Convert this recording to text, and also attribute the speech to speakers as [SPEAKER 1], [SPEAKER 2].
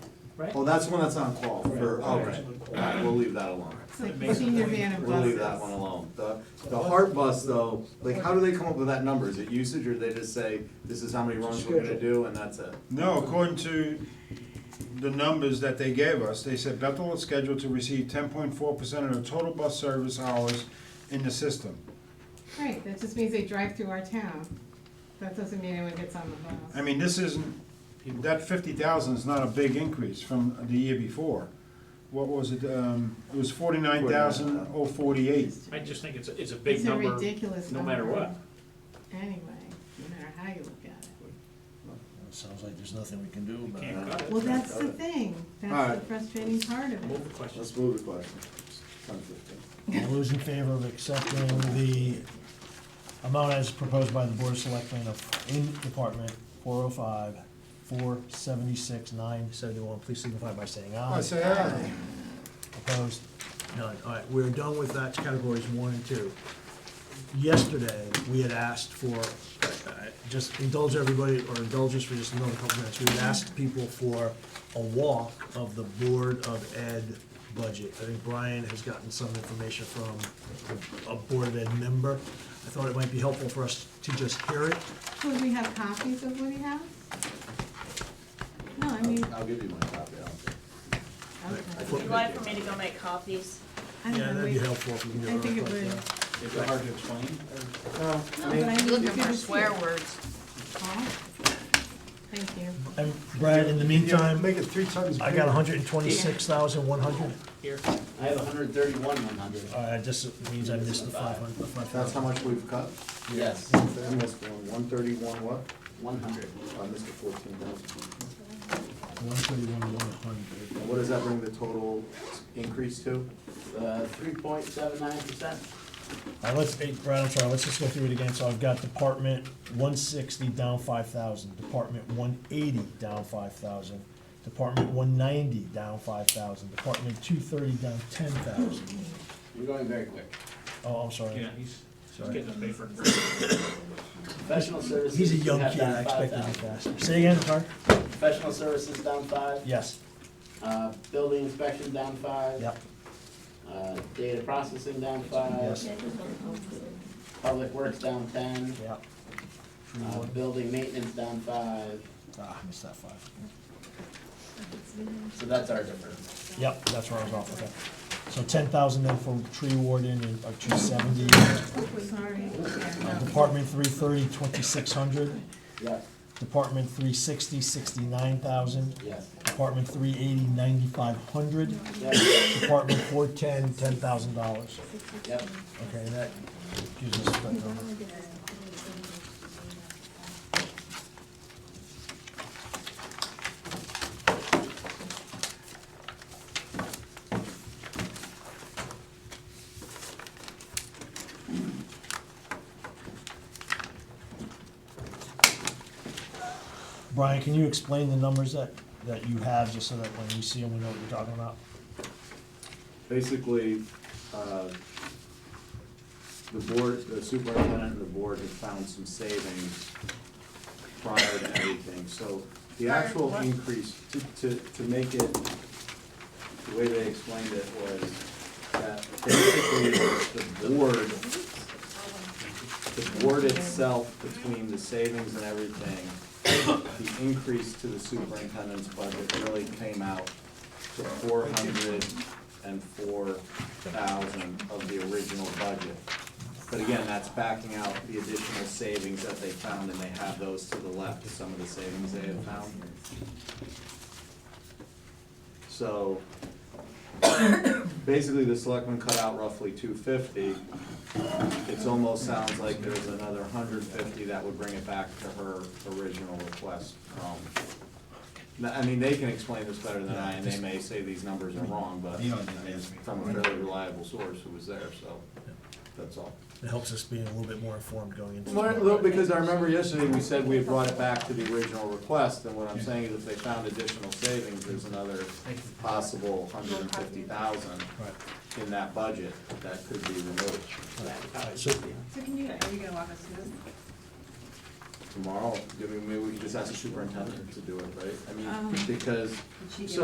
[SPEAKER 1] right?
[SPEAKER 2] Oh, that's the one that's on call for, oh,
[SPEAKER 1] Right.
[SPEAKER 2] okay, Alright, we'll leave that alone.
[SPEAKER 3] It's like the senior van and
[SPEAKER 2] We'll
[SPEAKER 3] buses.
[SPEAKER 2] leave that one alone. The, the Heart Bus though, like how do they come up with that number? Is it usage or they just say, this is how many runs we're gonna do and that's it?
[SPEAKER 4] No, according to the numbers that they gave us, they said Bethel is scheduled to receive ten point four percent of the total bus service hours in the system.
[SPEAKER 3] Right, that just means they drive through our town. That doesn't mean anyone gets on the
[SPEAKER 4] I
[SPEAKER 3] bus.
[SPEAKER 4] mean, this isn't, that fifty thousand is not a big increase from the year before. What was it, um, it was forty-nine thousand oh forty-eight.
[SPEAKER 1] I just think it's, a- it's a big
[SPEAKER 3] It's a
[SPEAKER 1] number,
[SPEAKER 3] ridiculous
[SPEAKER 1] no
[SPEAKER 3] number.
[SPEAKER 1] matter what.
[SPEAKER 3] Anyway, no matter how you look at it.
[SPEAKER 5] Sounds like there's nothing we can do about
[SPEAKER 1] Can't
[SPEAKER 5] it.
[SPEAKER 1] cut it.
[SPEAKER 3] Well, that's the thing. That's the
[SPEAKER 2] Alright.
[SPEAKER 3] frustrating part of it.
[SPEAKER 1] Move the question.
[SPEAKER 2] Let's move the question. Ten fifteen.
[SPEAKER 5] All those in favor of accepting the amount as proposed by the Board of Selectmen of, in Department four oh five, four seventy-six, nine seventy-one, please signify by saying
[SPEAKER 4] I
[SPEAKER 5] aye.
[SPEAKER 4] say, ah,
[SPEAKER 5] Opposed? None. All right, we're done with that, categories one and two. Yesterday, we had asked for, uh, just indulge everybody, or indulge us for just another couple minutes. We had asked people for a walk of the Board of Ed budget. I think Brian has gotten some information from a Board of Ed member. I thought it might be helpful for us to just hear it.
[SPEAKER 3] Would we have copies of what he has? No, I mean,
[SPEAKER 2] I'll give you my copy. I'll- I
[SPEAKER 3] okay.
[SPEAKER 2] think
[SPEAKER 6] Would you like for me to go make copies?
[SPEAKER 3] I
[SPEAKER 5] Yeah,
[SPEAKER 3] don't know.
[SPEAKER 5] that'd be
[SPEAKER 3] we- No,
[SPEAKER 5] helpful if we can
[SPEAKER 3] I
[SPEAKER 5] get
[SPEAKER 3] think
[SPEAKER 5] a
[SPEAKER 3] it
[SPEAKER 5] request.
[SPEAKER 3] would.
[SPEAKER 5] yeah.
[SPEAKER 1] Is it hard to explain?
[SPEAKER 2] No,
[SPEAKER 3] but
[SPEAKER 2] I mean,
[SPEAKER 3] I need
[SPEAKER 6] Looking
[SPEAKER 3] to
[SPEAKER 6] for
[SPEAKER 3] see
[SPEAKER 6] swear
[SPEAKER 3] it.
[SPEAKER 6] words.
[SPEAKER 3] Huh? Thank you.
[SPEAKER 5] And Brian, in the meantime,
[SPEAKER 4] make it three times
[SPEAKER 5] I got hundred and twenty-six thousand, one hundred.
[SPEAKER 1] Here,
[SPEAKER 7] I have hundred and thirty-one, one hundred.
[SPEAKER 5] All right, this means I missed the five hundred, five
[SPEAKER 2] that's how
[SPEAKER 5] thousand.
[SPEAKER 2] much we've cut?
[SPEAKER 7] Yes.
[SPEAKER 2] I missed one, one thirty-one what? Oh,
[SPEAKER 7] One hundred.
[SPEAKER 2] I missed the fourteen thousand.
[SPEAKER 5] One thirty-one, one hundred.
[SPEAKER 2] And what does that bring the total increase to?
[SPEAKER 7] Uh, three point seven nine percent.
[SPEAKER 5] All right, let's, hey, Brad, I'm sorry, let's just go through it again. So I've got department one sixty down five thousand, department one eighty down five thousand, department one ninety down five thousand, department two thirty down ten thousand.
[SPEAKER 7] You're going very quick.
[SPEAKER 5] Oh, I'm sorry.
[SPEAKER 1] yeah, he's, he's
[SPEAKER 5] Sorry.
[SPEAKER 1] getting a paper.
[SPEAKER 7] Professional services.
[SPEAKER 5] He's a
[SPEAKER 7] you
[SPEAKER 5] young
[SPEAKER 7] have
[SPEAKER 5] kid,
[SPEAKER 7] down
[SPEAKER 5] I expected to be
[SPEAKER 7] 5,000.
[SPEAKER 5] faster. Say again, sorry?
[SPEAKER 7] Professional services down five,
[SPEAKER 5] Yes,
[SPEAKER 7] uh, building inspection down five.
[SPEAKER 5] yep,
[SPEAKER 7] Uh, data processing down five,
[SPEAKER 5] yes,
[SPEAKER 7] public works down ten,
[SPEAKER 5] yep.
[SPEAKER 7] uh, building maintenance down five,
[SPEAKER 5] Ah, I missed that five.
[SPEAKER 7] so that's our difference.
[SPEAKER 5] Yep, that's where I was off, okay. So ten thousand then for tree warden and, or two seventy,
[SPEAKER 3] Sorry. Yeah, no.
[SPEAKER 5] department three thirty, twenty-six hundred,
[SPEAKER 7] Yes,
[SPEAKER 5] department three sixty, sixty-nine thousand,
[SPEAKER 7] yes,
[SPEAKER 5] department three eighty, ninety-five hundred,
[SPEAKER 7] yes,
[SPEAKER 5] department four ten, ten thousand dollars.
[SPEAKER 7] yep.
[SPEAKER 5] Okay, that gives us that number. Brian, can you explain the numbers that, that you have, just so that when we see them, we know what you're talking about?
[SPEAKER 2] basically, uh, the board, the superintendent and the board had found some savings prior to everything, so the
[SPEAKER 6] Prior to
[SPEAKER 2] actual
[SPEAKER 6] what?
[SPEAKER 2] increase, to, to, to make it, the way they explained it was that basically the board, the board itself, between the savings and everything, the increase to the superintendent's budget really came out to four hundred and four thousand of the original budget. But again, that's backing out the additional savings that they found, and they have those to the left, some of the savings they have found. So, basically, the selectmen cut out roughly two fifty. It's almost sounds like there's another hundred fifty that would bring it back to her original request from no, I mean, they can explain this better than I, and they may say these numbers are wrong, but
[SPEAKER 4] Yeah,
[SPEAKER 2] it's from a fairly reliable source who was there, so, that's all.
[SPEAKER 5] It helps us being a little bit more informed going into.
[SPEAKER 2] Well, look, because I remember yesterday, we said we had brought it back to the original request, and what I'm saying is if they found additional savings, there's another possible hundred and fifty thousand
[SPEAKER 5] Right.
[SPEAKER 2] in that budget that could be removed.
[SPEAKER 5] Alright, so,
[SPEAKER 6] So can you, are you gonna walk us through this?
[SPEAKER 2] Tomorrow, I mean, maybe we could just ask the superintendent to do it, right? I mean,
[SPEAKER 3] Um.
[SPEAKER 2] because,
[SPEAKER 6] she do
[SPEAKER 2] so